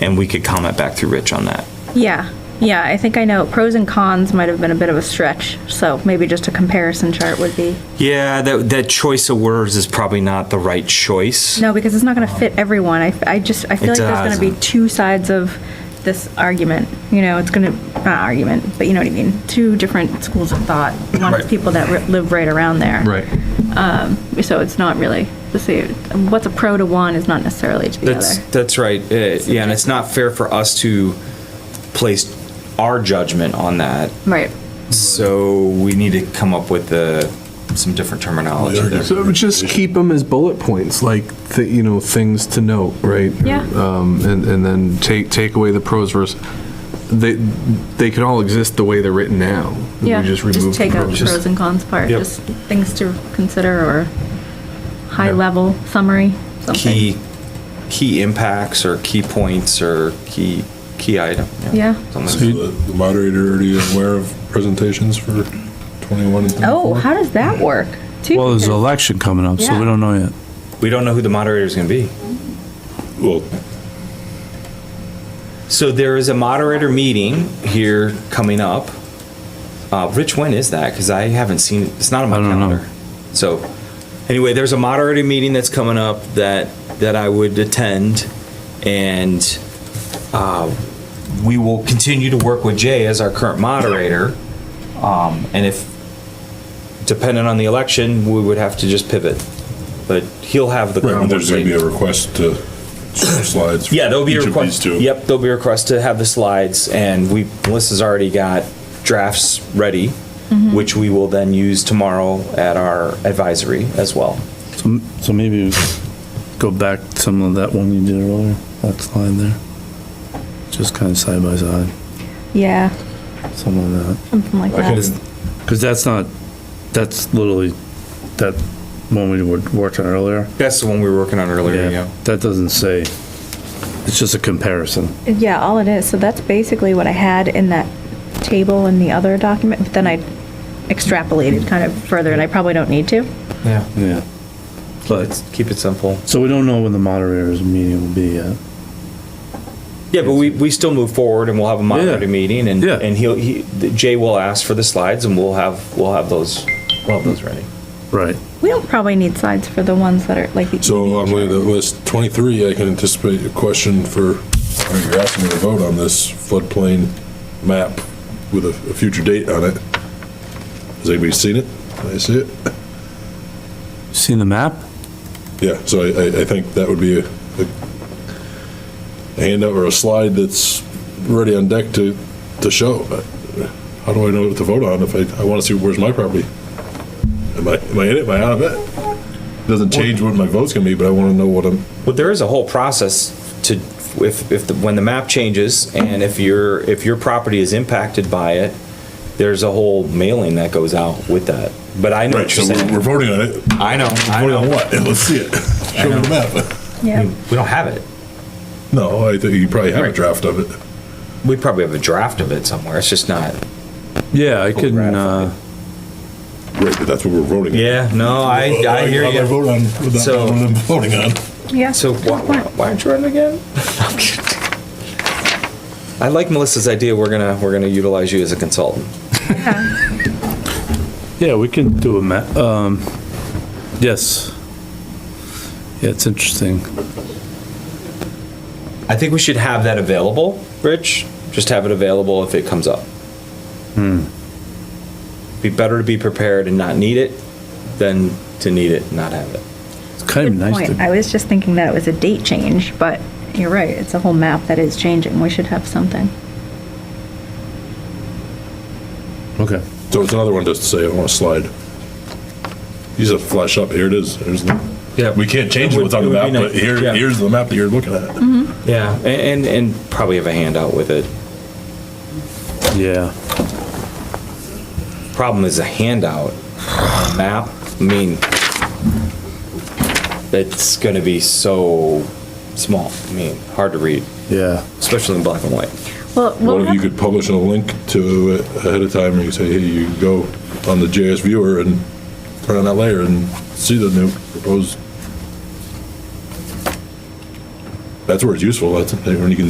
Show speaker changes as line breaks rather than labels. and we could comment back through Rich on that.
Yeah, yeah, I think I know pros and cons might have been a bit of a stretch, so maybe just a comparison chart would be,
Yeah, that, that choice of words is probably not the right choice.
no, because it's not gonna fit everyone, I, f- I just, I feel
It
like there's gonna be
doesn't.
two sides of this argument, you know, it's gonna, not argument, but you know what I mean, two different schools of thought, one is
Right.
people that ri- live right around there.
Right.
So it's not really, the same. what's a pro to one is not necessarily to the
That's,
other.
that's right. Uh, Yeah, and it's not fair for us to place our judgment on that.
Right,
So we need to come up with uh, some different terminology there.
So just keep them as bullet points, like, th- you know, things to note, right?
Yeah.
Um, and, and then take, take away the pros versus, they, they can all exist the way they're written now. We
yeah,
just remove
just
the
take out the
pros.
pros and cons part,
Yep.
just things to consider or
Yeah.
high-level summary, something.
Key, key impacts or key points or key, key item.
Yeah.
Something like
So
that.
the the moderator already is aware of presentations for 21 and 24?
Oh, how does that work? Two
Well, there's an
fingers.
election coming up, so
Yeah.
we don't know yet.
We don't know who the moderator is going to be.
Well,
So there is a moderator meeting here coming up. Uh, Rich, when is that? Because I haven't seen, it's not on my
I don't know.
calendar. So, anyway, there's a moderator meeting that's coming up that, that I would attend. And uh, we will continue to work with Jay as our current moderator. Um, And if, depending on the election, we would have to just pivot. But he'll have the.
right, but there's going to be
conversation.
a request to show slides. for
Yeah, there'll be a
each of these
request.
two.
Yep, there'll be a request to have the slides, and we, Melissa's already got drafts ready, which we will then use tomorrow at our advisory as well.
So, so maybe we go back to some of that one you did earlier, that slide there. Just kind of side by side,
Yeah,
something like that.
something like
I
that.
can-
Because that's not, that's literally, that one we were working earlier.
That's the one we were working on earlier,
That doesn't say, it's just a comparison.
Yeah, all it is, so that's basically what I had in that table in the other document, but then I extrapolated kind of further, and I probably don't need to.
Yeah.
Yeah. But,
Keep it simple.
so we don't know when the moderator's meeting will be yet.
Yeah, but we, we still move forward, and we'll have a moderator meeting, and,
Yeah.
and he'll, he, Jay will ask for the slides, and we'll have, we'll have those, we'll have those ready.
Right.
We don't probably need slides for the ones that are like the.
So on the list 23, I can anticipate a question for, or you're asking me to vote on this floodplain map with a a future date on it. Has anybody seen it? Can I see it?
Seen the map?
Yeah, so I- I, I think that would be a a handout or a slide that's ready on deck to, to show. But How do I know what to vote on if I, I want to see where's my property? Am I, am I in it, am I out of it? Doesn't change what my vote's gonna be, but I want to know what I'm,
Well, there is a whole process to, if, if, the- when the map changes and if your, if your property is impacted by it, there's a whole mailing that goes out with that. But I know
right,
what
so
you're
we're,
saying.
we're voting on it.
I know, I
Voting on
know.
what? And let's see it. Show me the map.
Hmm.
Yeah,
We don't have it.
No, I think you probably have a
Right.
draft of it.
We probably have a draft of it somewhere. It's just not.
Yeah, I can, uh,
Right, but that's what we're voting on.
Yeah, no, I, I hear
How do I
you.
vote on, without
So-
knowing what I'm voting on.
yeah.
So why, why aren't you running again? I'm kidding. I like Melissa's idea. We're gonna, we're gonna utilize you as a consultant.
yeah, we can do a map, um, yes. Yeah, it's interesting.
I think we should have that available, Rich. Just have it available if it comes up. Hmm. Be better to be prepared and not need it than to need it and not have it.
It's kind of
Good
nice
point.
to,
I was just thinking that it was a date change, but you're right, it's a whole map that is changing, we should have something.
okay.
So it's another one just to say, I want to slide. You just flash up, here it is, here's the.
Yeah.
We can't change
It would-
what's on the
it would be
map, but
nice,
here,
yeah.
here's the map that you're looking at.
Yeah, and, and, and probably have a handout with it.
Yeah,
Problem is a handout, a map. I mean, it's going to be so small. I mean, hard to read,
yeah.
especially in black and white.
Well,
What
we'll
if you
have,
could publish a link to it ahead of time, and you say, hey, you can go on the JS viewer and turn on that layer and see the new proposed. That's where it's useful, that's, when you can